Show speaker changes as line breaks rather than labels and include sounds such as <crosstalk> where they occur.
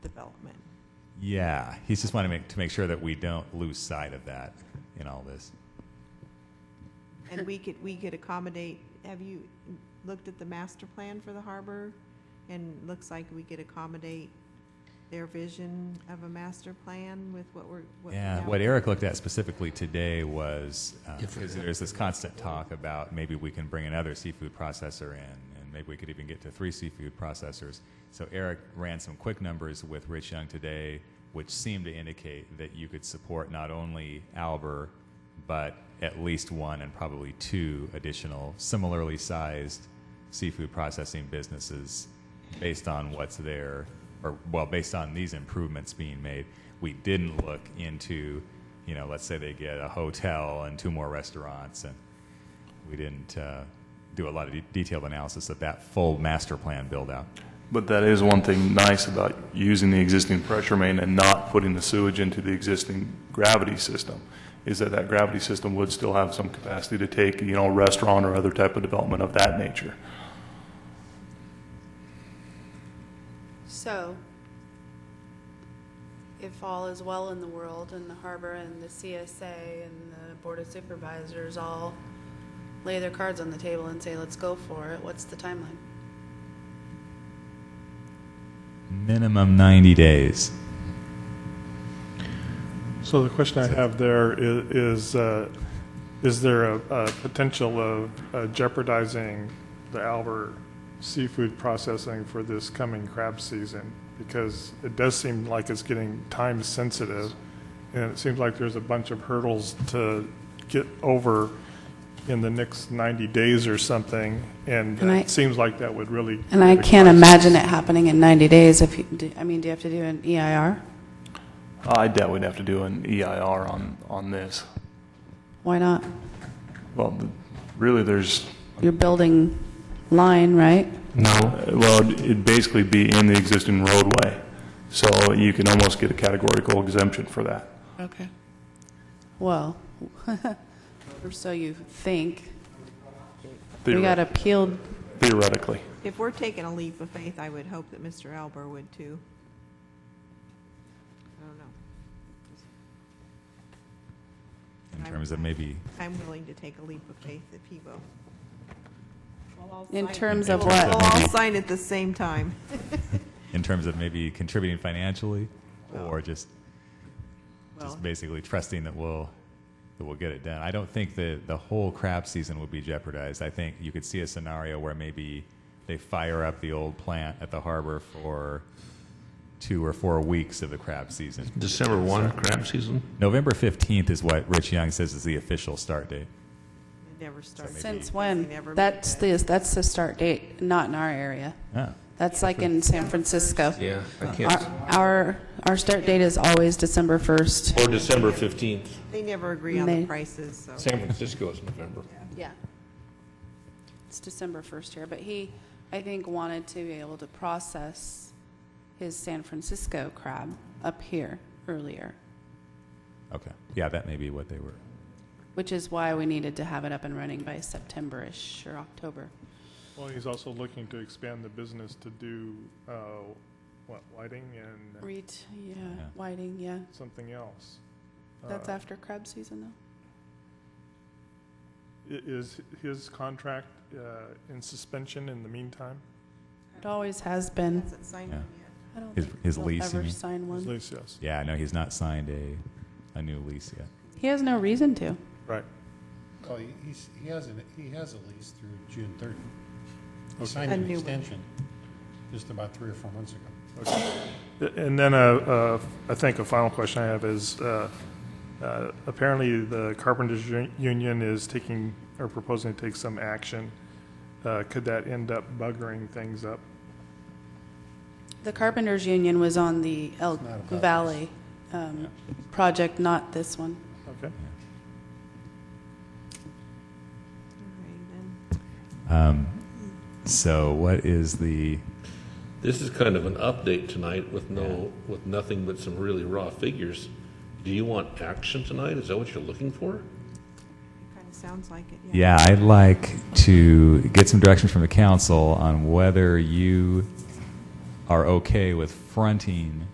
development.
Yeah, he's just wanting to make, to make sure that we don't lose sight of that in all this.
And we could, we could accommodate, have you looked at the master plan for the harbor? And looks like we could accommodate their vision of a master plan with what we're, what we
Yeah,
have.
what Eric looked at specifically today was, because there's this constant talk about maybe we can bring another seafood processor in, and maybe we could even get to three seafood processors. So Eric ran some quick numbers with Rich Young today, which seemed to indicate that you could support not only Alber, but at least one and probably two additional similarly sized seafood processing businesses based on what's there, or well, based on these improvements being made, we didn't look into, you know, let's say they get a hotel and two more restaurants, and we didn't uh, do a lot of de- detailed analysis of that full master plan build out.
But that is one thing nice about using the existing pressure main and not putting the sewage into the existing gravity system, is that that gravity system would still have some capacity to take, you know, restaurant or other type of development of that nature.
So, if all is well in the world, and the harbor and the CSA and the Board of Supervisors all lay their cards on the table and say, let's go for it, what's the timeline?
Minimum 90 days.
So the question I have there i- is, uh, is there a, a potential of uh, jeopardizing the Albert seafood processing for this coming crab season? Because it does seem like it's getting time sensitive, and it seems like there's a bunch of hurdles to get over in the next 90 days or something, and
And I-
it seems like that would really.
And I can't
require-
imagine it happening in 90 days if, you do- I mean, do you have to do an EIR?
I doubt we'd have to do an EIR on, on this.
Why not?
Well, the- really, there's,
You're building line, right?
No,
Uh, well, it'd basically be in the existing roadway, so you can almost get a categorical exemption for that.
okay.
Well, <laughs> or so you think. We got
Theoret-
appealed,
Theoretically.
If we're taking a leap of faith, I would hope that Mr. Elber would too. I don't know.
In terms of maybe,
I'm willing to take a leap of faith if he will. We'll all
in
sign-
terms of
We'll
what?
all sign at the same time.
in terms of maybe contributing financially, or just
Well-
just basically trusting that we'll that we'll get it done. I don't think the the whole crab season would be jeopardized. I think you could see a scenario where maybe they fire up the old plant at the harbor for two or four weeks of the crab season.
December 1, crab season?
November fifteenth is what Rich Young says is the official start date.
It Never starts.
Since
They never
when?
make
That's
it.
the, that's the start date, not in our area.
Ah,
That's like in San Francisco.
Yeah, I
Our- Our, our start date is always December 1st.
Or December 15th.
They never agree on the
May.
prices, so.
San Francisco is November.
Yeah. It's December 1st here, but he, I think, wanted to be able to process his San Francisco crab up here earlier,
okay, yeah, that may be what they were.
which is why we needed to have it up and running by September-ish or October.
Well, he's also looking to expand the business to do, uh, what, lighting and
Reet, yeah,
Yeah.
Whiting, yeah.
something else.
That's
Uh,
after crab season, though.
i- Is his contract uh, in suspension in the meantime?
It always has been.
Hasn't signed
Yeah.
them yet.
I don't
His-
think
his
they'll
lease, you
ever
mean?
sign
At
one.
least, yes.
Yeah, no, he's not signed a a new lease yet.
He has no reason to.
Right.
Well, Oh, he- he's, he has an, he has a lease through June thirty.
Okay.
He signed
A
an
new one.
extension just about three or four months ago.
And then, uh, uh, I think a final question I have is, uh, uh, apparently the Carpenters Uni- Union is taking, or proposing to take some action. Uh, Could that end up buggering things up?
The Carpenters Union was on the Elk
It's not about this.
Valley um, project, not this one.
Okay.
All right, then.
Um, so what is the
This is kind of an update tonight with no, with nothing but some really raw figures. Do you want action tonight? Is that what you're looking for?
It kind of sounds like it, yeah.
Yeah, I'd like to get some direction from the council on whether you are okay with fronting